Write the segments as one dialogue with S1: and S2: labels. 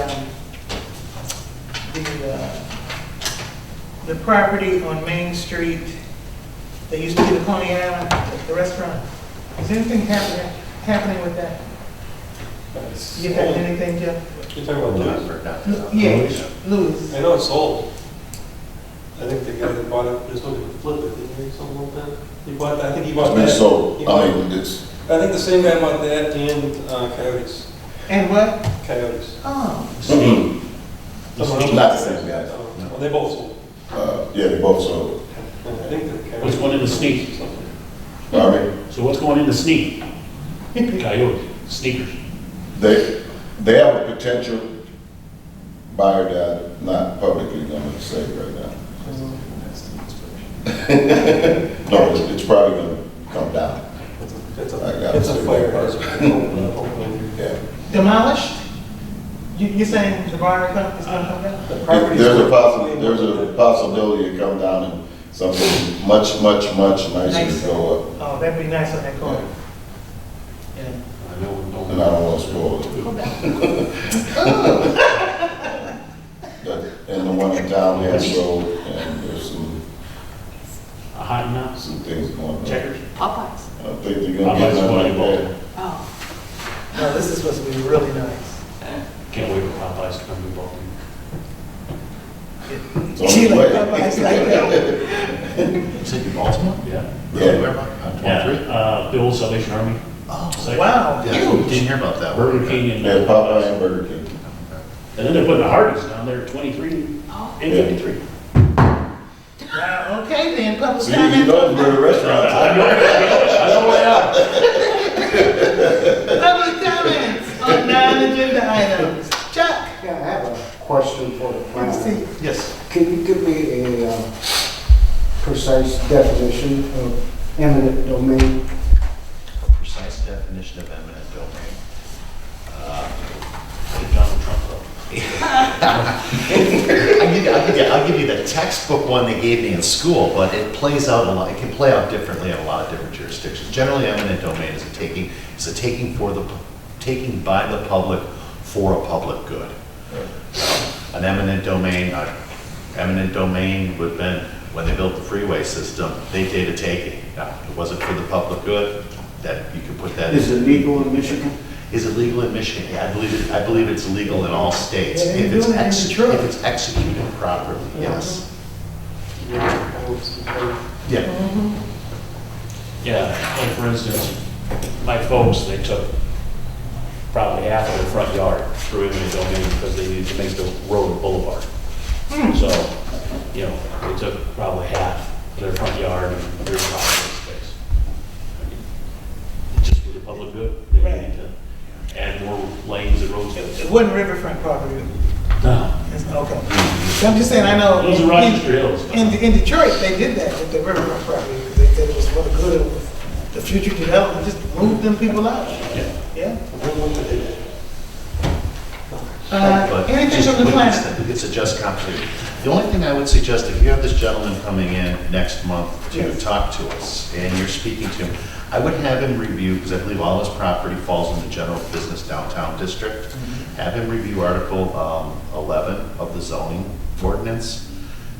S1: um, the, uh, the property on Main Street that used to be the Coney Island, the restaurant. Is anything happening, happening with that?
S2: It's
S1: You got
S2: old.
S1: anything, Jeff?
S2: You're talking about Louis?
S1: Yeah, Louis.
S2: I know it's old. I think the guy that bought it was looking to flip it, didn't he, something like that? He bought, that- I think he bought that.
S3: It's
S2: He
S3: sold,
S2: bought-
S3: I mean, it's,
S2: I think the same guy bought that and uh, Coyotes,
S1: And what?
S2: Coyotes.
S1: Oh,
S3: Mhm.
S2: Someone else-
S3: Not the same guy.
S2: Oh, Well, they both sold.
S3: uh, yeah, they both sold.
S2: I think they're Coyotes.
S4: What's one in the sneak?
S3: I mean,
S4: So what's going in the sneak? Coyote, sneakers.
S3: they, they have a potential buyer that not publicly gonna say right now. No, it's, it's probably gonna come down,
S2: It's
S3: I got
S2: a,
S3: it.
S2: it's a fire hazard.
S3: yeah.
S1: demolished? You, you're saying the bar is gonna is gonna come down?
S2: The
S3: If
S2: property's-
S3: There's a possi, there's a possibility it come down and something much, much, much nicer go up,
S1: Oh, that'd be nice on that corner. Yeah.
S4: I know, don't
S3: and I don't wanna spoil it. But, and the one in town has sold, and there's some,
S4: A hot nuts,
S3: some things going on.
S4: checkers.
S5: Popeyes.
S3: I don't think they're gonna get none like that.
S5: Oh,
S1: No, this is supposed to be really nice.
S4: Can't wait for Popeyes to come to Baltimore.
S3: It's on its
S1: Like,
S3: way.
S1: Popeyes, like that.
S6: Is it in Baltimore?
S4: Yeah.
S3: Yeah.
S6: Where am I? On
S4: Yeah,
S6: 23?
S4: uh, Bill's Salvation Army.
S6: Oh.
S4: Second.
S1: Wow,
S6: Yeah,
S1: huge.
S6: didn't hear about that. one.
S4: Burger King and.
S3: Yeah, Popeye and Burger King.
S4: And then they're putting the Hardee's down there, twenty-three and
S5: oh,
S4: fifty-three.
S1: Wow, okay then, public
S3: See, you
S1: comment.
S3: know where the restaurants
S4: I
S3: are.
S4: know, I know way out.
S1: Public comments on non-agenda items. Chuck?
S7: Yeah, I have a question for the
S1: Good to see
S7: planner.
S1: you.
S6: Yes.
S7: Can you give me a uh, precise definition of eminent domain?
S6: Precise definition of eminent domain.
S4: Put Donald Trump up.
S6: I'll give, you, I'll, give you, I'll give you the textbook one they gave me in school, but it plays out a lot. It can play out differently in a lot of different jurisdictions. Generally, eminent domain is a taking is a taking for the pu- taking by the public for a public good. An eminent domain, uh, eminent domain would have been when they built the freeway system. They did a taking. Now, it wasn't for the public good. That you could put that. in.
S7: legal in Michigan?
S6: Is it legal in Michigan? Yeah, I believe it, I believe it's legal in all states,
S1: Yeah,
S6: if
S1: doing it
S6: it's
S1: Uh-huh. in
S6: ex,
S1: Detroit.
S6: if it's executed properly, yes. Yeah,
S4: Yeah, like for instance, my folks, they took probably half of their front yard through eminent domain because they needed to make the road a boulevard.
S1: Hmm.
S4: So, you know, they took probably half of their front yard and their property space. I mean, It's just for the public good, they
S1: Right.
S4: need to add more lanes and roads.
S1: It it wasn't riverfront property.
S4: No,
S1: It's- Okay. So I'm just saying, I know.
S4: those are Rochester Hills.
S1: In, in Detroit, they did that with the riverfront property. They said it was for the good of the future development, just move them people out.
S4: Yeah.
S1: Yeah. Uh,
S6: but.
S1: anything
S6: just-
S1: from the
S6: but it's-
S1: planet?
S6: It's a just compensation. The only thing I would suggest, if you have this gentleman coming in next month to
S1: Yes.
S6: talk to us, and you're speaking to him, I would have him review, because I believe all his property falls in the general business downtown district,
S1: Mm-hmm.
S6: have him review Article um, 11 of the zoning ordinance,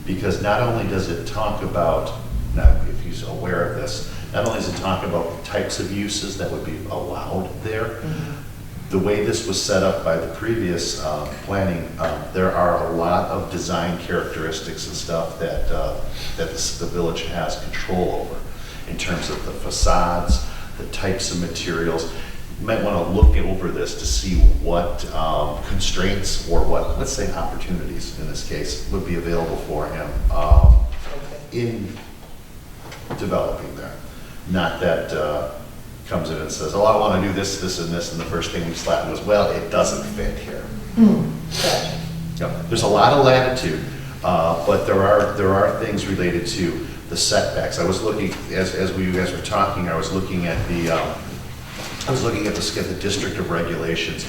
S6: because not only does it talk about, now, if he's aware of this, not only does it talk about types of uses that would be allowed there, the way this was set up by the previous um, planning, um, there are a lot of design characteristics and stuff that, uh, that the s- the village has control over in terms of the facades, the types of materials. You might want to look over this to see what um, constraints or what, let's say opportunities in this case, would be available for him um, in developing there. Not that uh, comes in and says, oh, I want to do this, this, and this, and the first thing we slap was, well, it doesn't fit here. Yep. There's a lot of latitude, uh, but there are, there are things related to the setbacks. I was looking, as, as we, you guys were talking, I was looking at the, um, I was looking at the, at the district of regulations.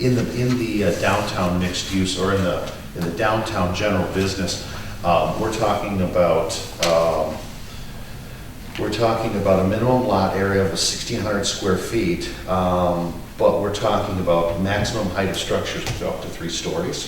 S6: In the, in the uh, downtown mixed use, or in the, in the downtown general business, um, we're talking about, um, we're talking about a minimum lot area of 1,600 square feet, um, but we're talking about maximum height of structures of up to three stories.